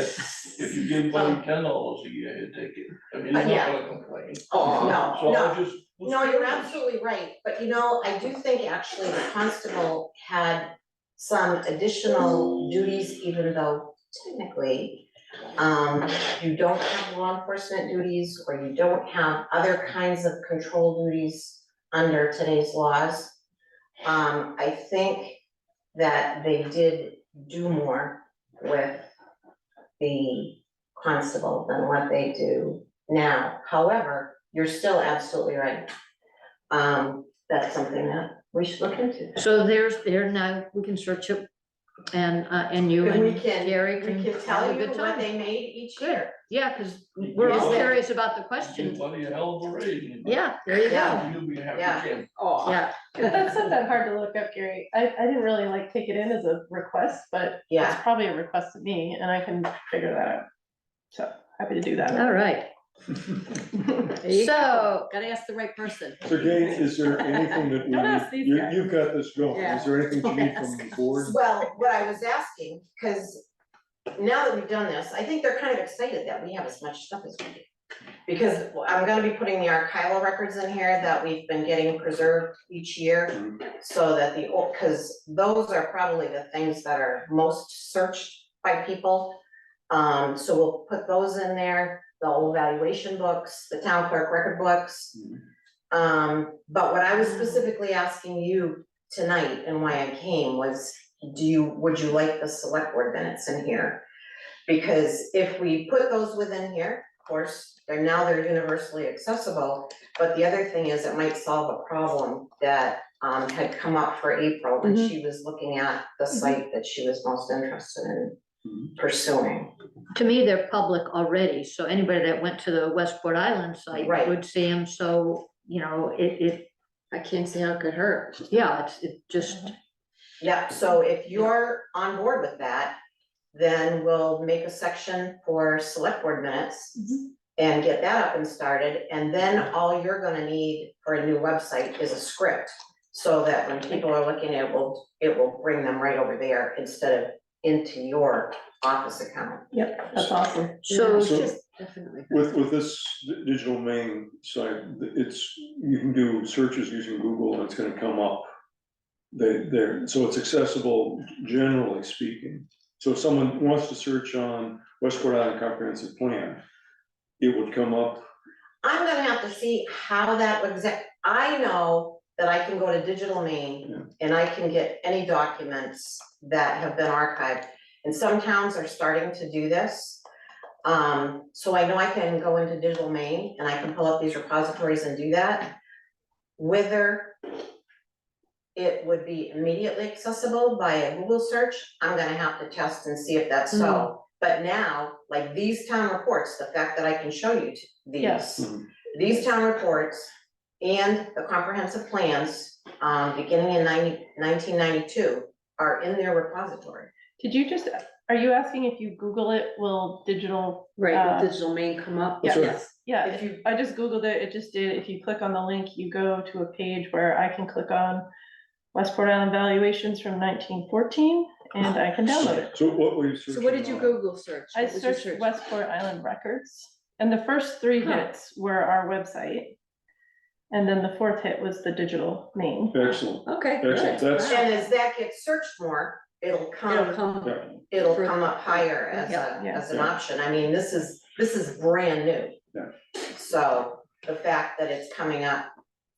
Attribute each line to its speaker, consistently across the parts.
Speaker 1: If you give money ten dollars a year, he'd take it, I mean, he's not
Speaker 2: Yeah.
Speaker 1: gonna complain.
Speaker 2: Oh,
Speaker 1: So
Speaker 2: no,
Speaker 1: I
Speaker 2: no,
Speaker 1: just.
Speaker 2: no, you're absolutely right, but you know, I do think actually the constable had some additional duties, even though technically um, you don't have law enforcement duties, or you don't have other kinds of control duties under today's laws. Um, I think that they did do more with the constable than what they do now. However, you're still absolutely right. Um, that's something that we should look into.
Speaker 3: So there's, there now, we can search it and, uh, and you
Speaker 2: And we
Speaker 3: and
Speaker 2: can-
Speaker 3: Gary
Speaker 2: We
Speaker 3: can.
Speaker 2: can tell
Speaker 3: have a
Speaker 2: you
Speaker 3: good
Speaker 2: what
Speaker 3: time.
Speaker 2: they made each
Speaker 3: Good.
Speaker 2: year.
Speaker 3: Yeah, cause we're all
Speaker 2: Yeah.
Speaker 3: curious about the
Speaker 1: Give
Speaker 3: question.
Speaker 1: money a hell of a raise.
Speaker 3: Yeah, there you go.
Speaker 2: Yeah.
Speaker 1: You'll be happy,
Speaker 2: Yeah.
Speaker 1: Ken.
Speaker 4: Oh,
Speaker 3: Yeah,
Speaker 5: But That's not that hard to look up, Gary. I, I didn't really like take it in as a request, but it's
Speaker 2: Yeah,
Speaker 5: probably a request to me and I can figure that out. So happy to do that.
Speaker 3: all right. So,
Speaker 4: gotta ask the right person.
Speaker 6: So Gates, is there anything that
Speaker 5: Don't ask
Speaker 6: we,
Speaker 5: these
Speaker 6: need- you,
Speaker 5: guys.
Speaker 6: you've got this going,
Speaker 4: Yeah.
Speaker 6: is there anything you
Speaker 4: Don't
Speaker 6: need from
Speaker 4: ask
Speaker 6: the
Speaker 4: us.
Speaker 6: board?
Speaker 2: well, what I was asking, because now that we've done this, I think they're kind of excited that we have as much stuff as we do. Because I'm gonna be putting the archival records in here that we've been getting preserved each year. So that the, old because those are probably the things that are most searched by people. Um, so we'll put those in there, the old valuation books, the town clerk record books. Um, but what I was specifically asking you tonight and why I came was, do you, would you like the select board minutes in here? Because if we put those within here, of course, they're now they're universally accessible, but the other thing is it might solve a problem that um had come up for April when she was looking at the site that she was most interested in pursuing.
Speaker 3: to me, they're public already, so anybody that went to the Westport Island site
Speaker 2: Right.
Speaker 3: would see them, so, you know, it, it,
Speaker 4: I can't see how it could hurt.
Speaker 3: yeah, it's, it just,
Speaker 2: Uh-huh. Yep, so if you're on board with that, then we'll make a section for select board minutes
Speaker 5: Mm-hmm.
Speaker 2: and get that up and started, and then all you're gonna need for a new website is a script. So that when people are looking at it, will, it will bring them right over there instead of into your office account.
Speaker 5: Yep, that's awesome.
Speaker 3: so
Speaker 6: So-
Speaker 4: Just definitely.
Speaker 6: With, with this di- digital main site, th- it's, you can do searches using Google and it's gonna come up. They, they're, so it's accessible generally speaking. So if someone wants to search on Westport Island Comprehensive Plan, it would come up,
Speaker 2: I'm gonna have to see how that would exact, I know that I can go to Digital Main and I can get any documents that have been archived. And some towns are starting to do this. Um, so I know I can go into Digital Main and I can pull up these repositories and do that. Whether it would be immediately accessible by a Google search, I'm gonna have to test and see if that's so. But now, like these town reports, the fact that I can show you t- these
Speaker 5: Yes.
Speaker 2: these town reports and the comprehensive plans, um, beginning in 90 1992, are in their repository.
Speaker 5: Did you just, are you asking if you Google it, will digital?
Speaker 4: Right,
Speaker 5: Uh,
Speaker 4: the digital main come up.
Speaker 6: That's right.
Speaker 4: Yes.
Speaker 5: Yeah,
Speaker 2: If you,
Speaker 5: I just Googled it. It just did. If you click on the link, you go to a page where I can click on Westport Island valuations from nineteen fourteen and I can download it.
Speaker 6: so what were you searching
Speaker 4: So what did you
Speaker 6: on?
Speaker 4: Google search?
Speaker 5: I
Speaker 4: What was your
Speaker 5: searched
Speaker 4: search?
Speaker 5: Westport Island records, and the first three
Speaker 4: Huh.
Speaker 5: hits were our website. And then the fourth hit was the digital main.
Speaker 6: Excellent,
Speaker 4: Okay.
Speaker 6: Excellent,
Speaker 4: good.
Speaker 6: that's-
Speaker 2: and as that gets searched more, it'll
Speaker 4: It'll
Speaker 2: come,
Speaker 4: come.
Speaker 6: yeah,
Speaker 2: it'll come up higher as a,
Speaker 5: Yeah.
Speaker 2: as an option. I mean, this is, this is brand new.
Speaker 6: Yeah.
Speaker 2: So the fact that it's coming up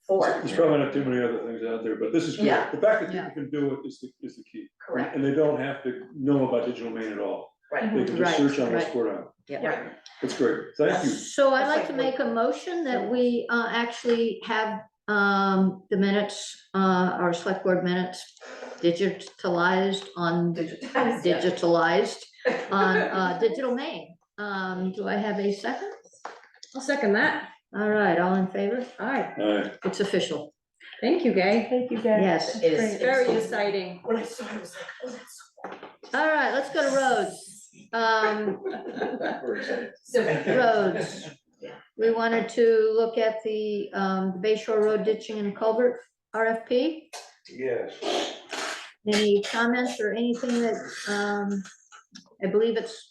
Speaker 2: for,
Speaker 6: there's probably not too many other things out there, but this is good,
Speaker 2: Yeah.
Speaker 6: the fact that
Speaker 3: Yeah.
Speaker 6: people can do it is the, is the key.
Speaker 2: correct,
Speaker 6: And they don't have to know about digital main at all.
Speaker 2: right,
Speaker 6: They can just
Speaker 3: Right,
Speaker 6: search on
Speaker 3: right.
Speaker 6: Westport Island.
Speaker 2: right.
Speaker 6: That's great. Thank you.
Speaker 3: So I'd
Speaker 2: It's
Speaker 3: like
Speaker 2: like
Speaker 3: to
Speaker 2: we're-
Speaker 3: make a motion that we uh, actually have um, the minutes, uh, our select board minutes digitalized on,
Speaker 2: Digitized, yeah.
Speaker 3: digitalized on uh, digital main. Um, Do I have a second?
Speaker 4: I'll second that.
Speaker 3: All right, all in favor?
Speaker 4: All right,
Speaker 6: All right.
Speaker 3: It's official.
Speaker 4: thank you, Gay.
Speaker 5: Thank you guys.
Speaker 3: Yes.
Speaker 2: It is.
Speaker 5: Great.
Speaker 4: Very exciting.
Speaker 2: When I saw it, I was like, oh, that's
Speaker 3: All right, let's go to roads. Um,
Speaker 2: so.
Speaker 3: Roads. We wanted to look at the um, Bay Shore Road ditching and culvert RFP.
Speaker 1: Yes.
Speaker 3: Any comments or anything that, um, I believe it's